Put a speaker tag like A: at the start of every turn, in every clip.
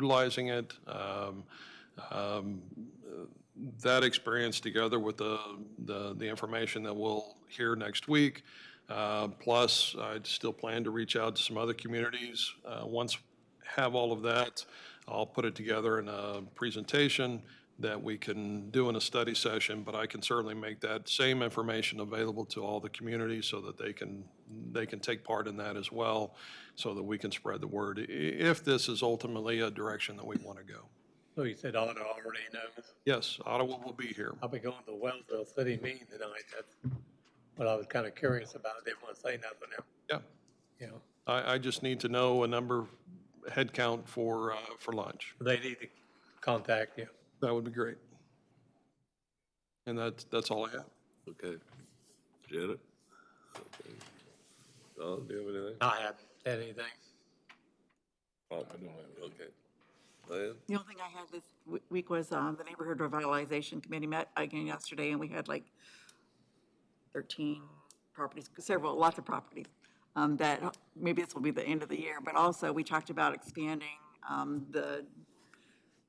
A: utilizing it. Um, um, That experience, together with the, the the information that we'll hear next week, uh, plus I still plan to reach out to some other communities. Uh, Once have all of that, I'll put it together in a presentation that we can do in a study session, but I can certainly make that same information available to all the community so that they can, they can take part in that as well, so that we can spread the word, i- if this is ultimately a direction that we want to go.
B: So you said Otto already knows.
A: Yes, Ottawa will be here.
B: I'll be going to Wellsville City meeting tonight. That's what I was kind of curious about. Didn't want to say nothing,
A: Yeah,
B: you know.
A: I, I just need to know a number, head count for, uh, for lunch.
B: They need to contact you.
A: That would be great. And that's, that's all I have.
C: Okay. Janet? Okay. Don, do you have anything?
B: I haven't said anything.
C: Oh, I don't have. Okay. Diane?
D: The only thing I had this w- week was um, the Neighborhood Revitalization Committee met again yesterday, and we had like 13 properties, several, lots of properties, um, that, maybe this will be the end of the year, but also, we talked about expanding um, the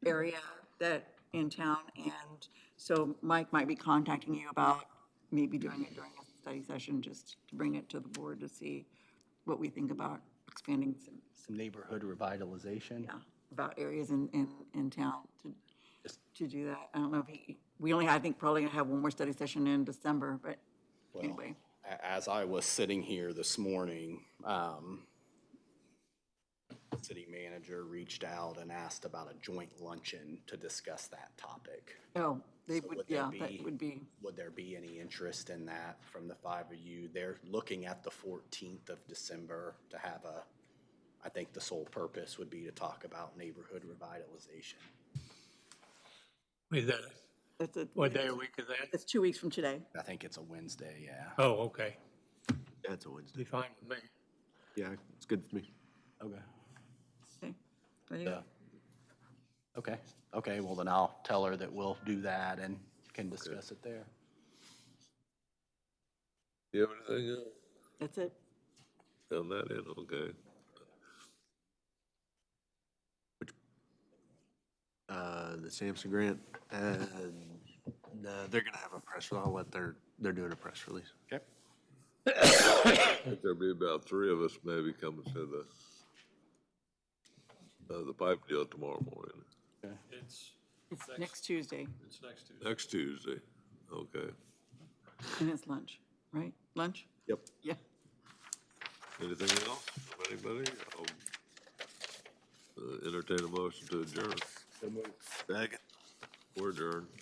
D: area that, in town, and so Mike might be contacting you about maybe doing it during a study session, just to bring it to the board to see what we think about expanding some,
E: some neighborhood revitalization.
D: yeah, about areas in, in, in town to, to do that. I don't know if he, we only, I think probably gonna have one more study session in December, but anyway.
F: a- as I was sitting here this morning, um, city manager reached out and asked about a joint luncheon to discuss that topic.
D: Oh, they
F: So
D: would,
F: would that
D: yeah, that
F: be-
D: would be,
F: Would there be any interest in that from the five of you? They're looking at the fourteenth of December to have a, I think the sole purpose would be to talk about neighborhood revitalization.
B: Is that,
D: that's a,
B: what day a week is that?
D: it's two weeks from today.
F: I think it's a Wednesday, yeah.
B: Oh, okay.
C: That's a Wednesday.
B: Be fine with me.
C: Yeah, it's good for me.
E: Okay.
D: Okay. There you
F: Yeah.
D: go.
F: Okay, okay, well then I'll tell her that we'll do that and can discuss it there.
C: Do you have anything else?
D: That's it.
C: Fill that in, okay.
G: uh, the Sampson grant, and uh, they're gonna have a press release. I'll let their they're doing a press release.
F: Okay.
C: I think there'll be about three of us maybe coming to the, uh, the pipe deal tomorrow morning,
A: It's,
D: It's next Tuesday,
A: it's next Tuesday.
C: next Tuesday. Okay.
D: and it's lunch, right? Lunch?
G: Yep.
D: Yeah.
C: Anything else from anybody? I'll, uh, Entertain a motion to adjourn.
G: Second.
C: We're adjourned.